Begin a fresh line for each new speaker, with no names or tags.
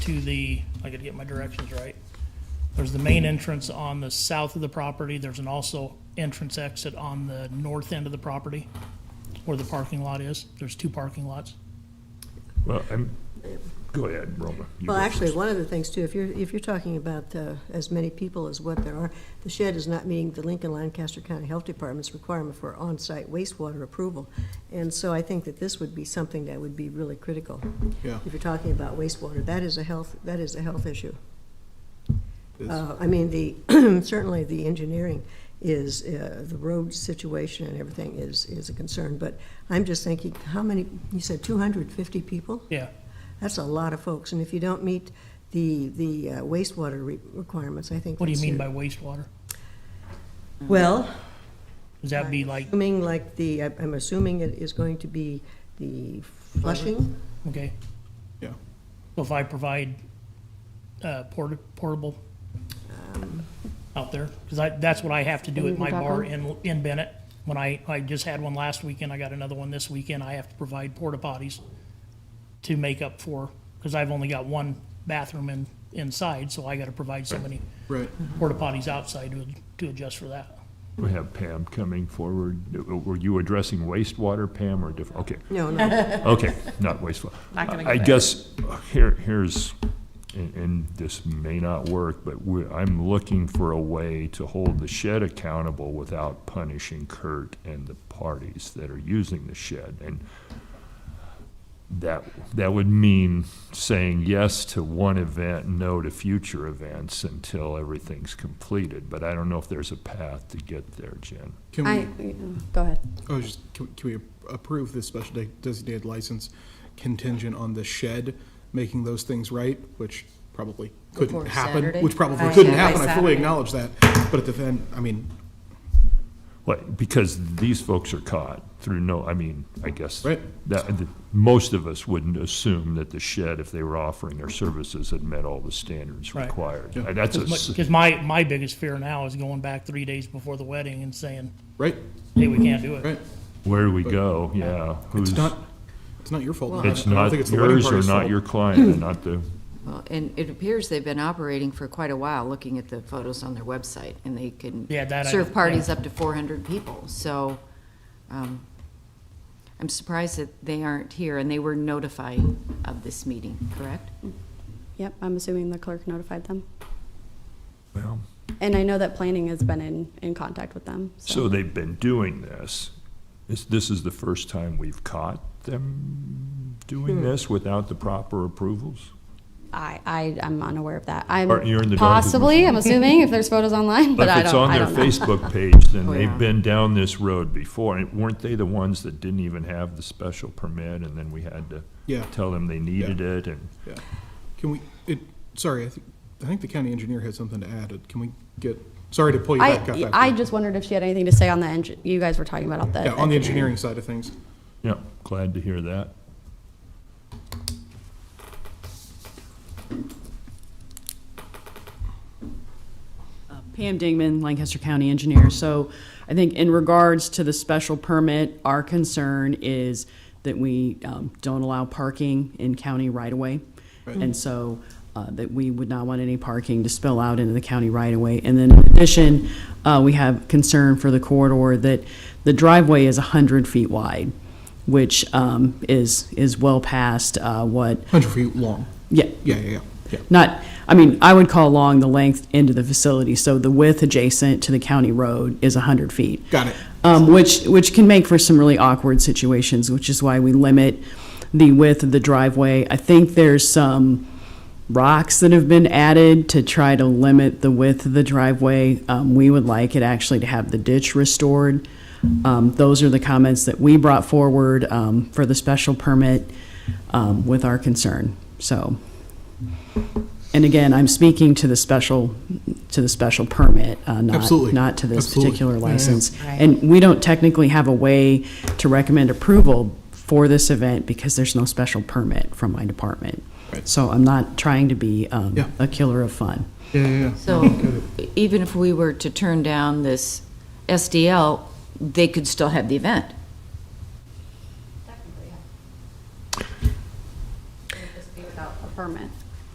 to the, I gotta get my directions right. There's the main entrance on the south of the property, there's an also entrance exit on the north end of the property where the parking lot is. There's two parking lots.
Well, I'm, go ahead, Roma. You
Well,
go
actually,
first.
one of the things too, if you're, if you're talking about uh, as many people as what there are, the shed is not meeting the Lincoln Lancaster County Health Department's requirement for on-site wastewater approval. And so I think that this would be something that would be really critical.
Yeah.
If you're talking about wastewater, that is a health, that is a health issue. Uh, I mean, the, certainly the engineering is, uh, the road situation and everything is, is a concern. But I'm just thinking, how many, you said 250 people?
Yeah,
That's a lot of folks, and if you don't meet the, the uh, wastewater re- requirements, I think.
what do you
that's
mean by
your-
wastewater?
Well,
Does that be like,
assuming like the, I- I'm assuming it is going to be the flushing.
okay,
Yeah.
so if I provide, uh, porta- portable out there? Cause I, that's what I have to do at my bar in, in Bennett. When I, I just had one last weekend, I got another one this weekend, I have to provide porta potties to make up for, cause I've only got one bathroom in, inside, so I gotta provide so many
Right.
porta potties outside to, to adjust for that.
We have Pam coming forward. Were you addressing wastewater, Pam, or different? Okay,
No, no,
okay, not wastewater.
Not gonna go
I
there.
guess, here, here's, and, and this may not work, but we, I'm looking for a way to hold the shed accountable without punishing Kurt and the parties that are using the shed. And that, that would mean saying yes to one event, no to future events until everything's completed. But I don't know if there's a path to get there, Jen.
Can
I,
we,
Mm.
go ahead.
oh, just, can we- can we approve this special de- designated license contingent on the shed making those things right, which probably couldn't
Before
happen,
Saturday?
which probably
Right.
couldn't
Yeah, by
happen, I fully
Saturday.
acknowledge that, but at the end, I mean,
What, because these folks are caught through no, I mean, I guess.
Right.
That, that- most of us wouldn't assume that the shed, if they were offering their services, had met all the standards
Right.
required.
Yeah.
Uh, That's a, s-
Cause my, my biggest fear now is going back three days before the wedding and saying,
right,
hey, we can't do it.
right,
where do we go? Yeah.
it's
who's-
not, it's not your fault.
It's
I don't
not
think it's the wedding
yours or
party's
not
fault.
your client and not the,
Well, and it appears they've been operating for quite a while, looking at the photos on their website, and they can
Yeah, that I-
serve parties
yeah.
up to four hundred people, so, um, I'm surprised that they aren't here, and they were notified of this meeting, correct?
Yep, I'm assuming the clerk notified them.
well,
And I know that planning has been in, in contact with them,
so
so.
they've been doing this. This, this is the first time we've caught them
Hmm.
doing this without the proper approvals?
I, I, I'm unaware of that. I'm
Or you're in the dark as
possibly, I'm assuming, if there's photos online, but
But
I
if it's
don't,
on
I
their
don't know.
Facebook page, then
Oh,
they've
yeah.
been down this road before. And weren't they the ones that didn't even have the special permit and then we had to
Yeah.
tell them they needed it and?
Yeah. Can we, it, sorry, I think, I think the county engineer had something to add, can we get, sorry to pull you back up.
I,
after-
I just wondered if she had anything to say on the, engi- you guys were talking about the.
Yeah, on the engineering side of things.
Yeah, glad to hear that.
Pam Dingman, Lancaster County Engineer. So I think in regards to the special permit, our concern is that we um, don't allow parking in county right-of-way. And so uh, that we would not want any parking to spill out into the county right-of-way. And then in addition, uh, we have concern for the corridor that the driveway is 100 feet wide, which um, is, is well past uh, what,
Hundred feet long.
yeah,
Yeah, yeah, yeah, yeah.
not, I mean, I would call along the length into the facility, so the width adjacent to the county road is 100 feet.
Got it.
Um, which, which can make for some really awkward situations, which is why we limit the width of the driveway. I think there's some rocks that have been added to try to limit the width of the driveway. Um, we would like it actually to have the ditch restored. Um, those are the comments that we brought forward, um, for the special permit, um, with our concern, so. And again, I'm speaking to the special, to the special permit, uh, not,
Absolutely.
not to this
Absolutely.
particular
Yeah, yeah.
license.
Right.
And we don't technically have a way to recommend approval for this event because there's no special permit from my department.
Right.
So I'm not trying to be um,
Yeah.
a killer of fun.
Yeah, yeah, yeah.
So, even if we were to turn down this SDL, they could still have the event.